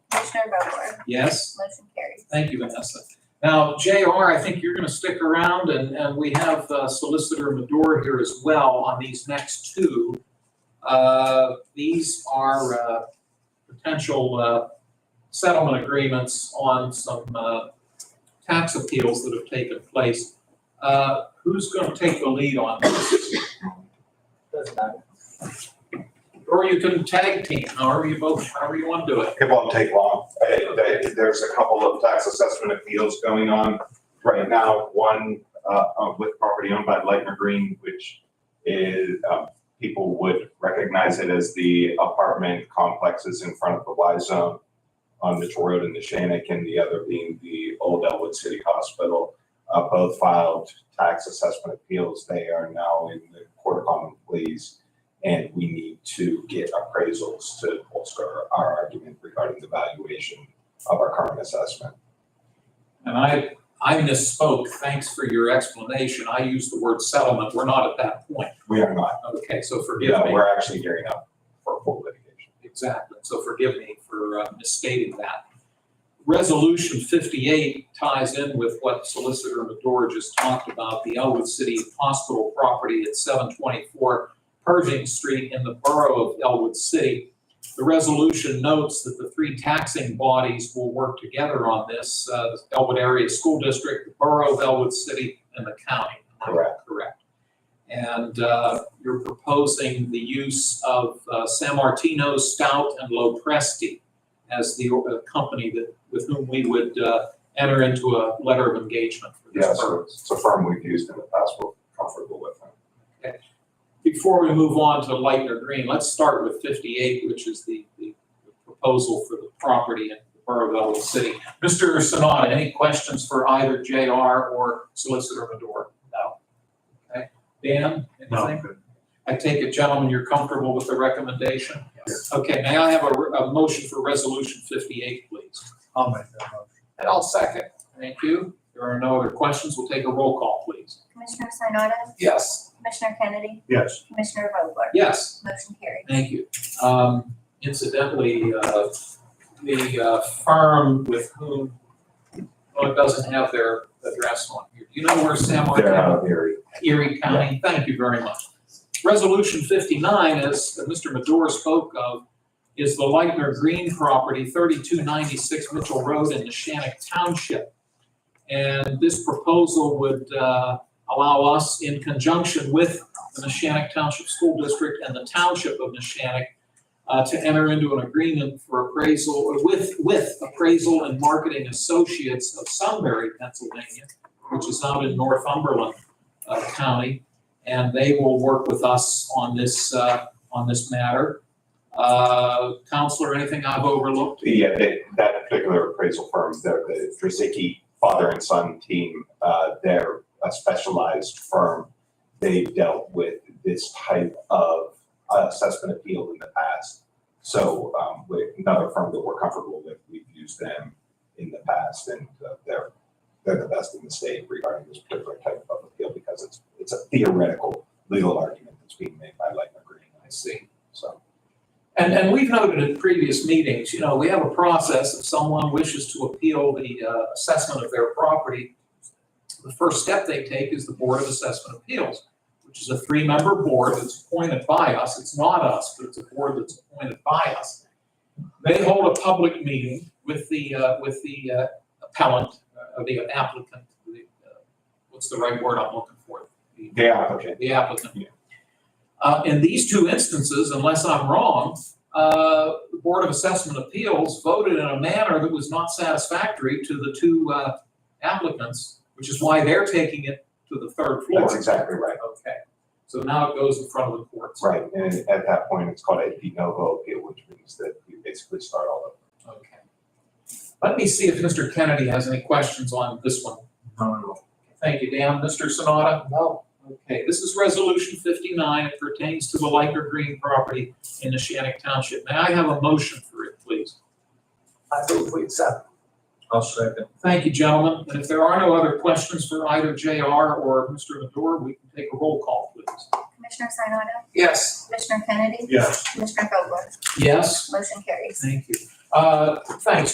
Commissioner Vogler, Yes, motion carries. thank you, Vanessa. Now, JR, I think you're going to stick around, and, and we have uh, Solicitor Madore here as well on these next two. Uh, These are uh, potential uh, settlement agreements on some uh, tax appeals that have taken place. Uh, Who's going to take the lead on this? Doesn't matter. Or you can tag team, however you both, however you want to do it. It won't take long. Uh, they- There's a couple of tax assessment appeals going on right now. One uh, uh, with property owned by Lightner Green, which is, uh, people would recognize it as the apartment complexes in front of the Y zone on Mitchell Road and the Shannick, and the other being the Old Elwood City Hospital. Uh, Both filed tax assessment appeals. They are now in the Court of Common Pleas and we need to get appraisals to bolster our argument regarding the valuation of our current assessment. And I, I misspoke. Thanks for your explanation. I used the word settlement. We're not at that point. We are not, Okay, so forgive yeah, me. we're actually gearing up for full litigation. Exactly. So forgive me for uh, misstating that. Resolution 58 ties in with what Solicitor Madore just talked about, the Elwood City Hospital property at 724 Pershing Street in the borough of Elwood City. The resolution notes that the three taxing bodies will work together on this, uh, the Elwood Area School District, the borough of Elwood City, and the county. Am I Correct. Correct. And uh, you're proposing the use of uh, San Martino, Stout, and Lopresti as the uh, company that, with whom we would uh, enter into a letter of engagement for Yeah, this so purpose. it's a firm we've used in the past, we're comfortable with them. Before we move on to Lightner Green, let's start with 58, which is the the proposal for the property in the Borough of Elwood City. Mr. Sanada, any questions for either JR or Solicitor Madore? No. Okay. Dan, anything? I take it, gentlemen, you're comfortable with the recommendation? Yes. Okay, may I have a, re- a motion for Resolution 58, please? I'll make that motion. And I'll second. Thank you. There are no other questions. We'll take a roll call, please. Commissioner Sinata, Yes. Commissioner Kennedy, Yes. Commissioner Vogler, Yes. motion carries. Thank you. Um, Incidentally, uh, the uh, firm with whom, oh, it doesn't have their address on here. Do you know where San They're Martin, out of Erie. Erie County? Thank you very much. Resolution 59, as Mr. Madore spoke of, is the Lightner Green property, 3296 Mitchell Road in Neshannock Township. And this proposal would uh, allow us, in conjunction with the Neshannock Township School District and the Township of Neshannock, uh, to enter into an agreement for appraisal, with, with Appraisal and Marketing Associates of Sunbury, Pennsylvania, which is out in Northumberland uh, County, and they will work with us on this, uh, on this matter. Uh, Counselor, anything I've overlooked? Yeah, they, that particular appraisal firm, they're the Drazicki father and son team, uh, they're a specialized firm. They've dealt with this type of uh, assessment appeal in the past. So, um, with another firm that we're comfortable with, we've used them in the past and uh, they're, they're the best in the state regarding this particular type of appeal because it's, it's a theoretical legal argument that's being made by Lightner Green, I see, so. And, and we've noted in previous meetings, you know, we have a process, if someone wishes to appeal the uh, assessment of their property, the first step they take is the Board of Assessment Appeals, which is a three-member board that's appointed by us, it's not us, but it's a board that's appointed by us. They hold a public meeting with the, uh, with the uh, appellant, uh, or the applicant, the, uh, what's the right word I'm looking for? The- The applicant the applicant. Yeah. Uh, in these two instances, unless I'm wrong, uh, the Board of Assessment Appeals voted in a manner that was not satisfactory to the two, uh, applicants, which is why they're taking it to the third floor. That's exactly right. Okay, so now it goes in front of the courts. Right, and at that point, it's called a de novo appeal, which means that you basically start all over. Okay. Let me see if Mr. Kennedy has any questions on this one. Thank you, Dan. Mr. Sonata? No. Okay, this is Resolution 59. It pertains to the Liker Green property in Neshannock Township. May I have a motion for it, please? I move we accept. I'll second. Thank you, gentlemen. And if there are no other questions for either JR or Mr. Madore, we can take a roll call, please. Commissioner Sinata, Yes. Commissioner Kennedy, Yes. Commissioner Vogler, Yes? motion carries. Thank you. Uh, Thanks,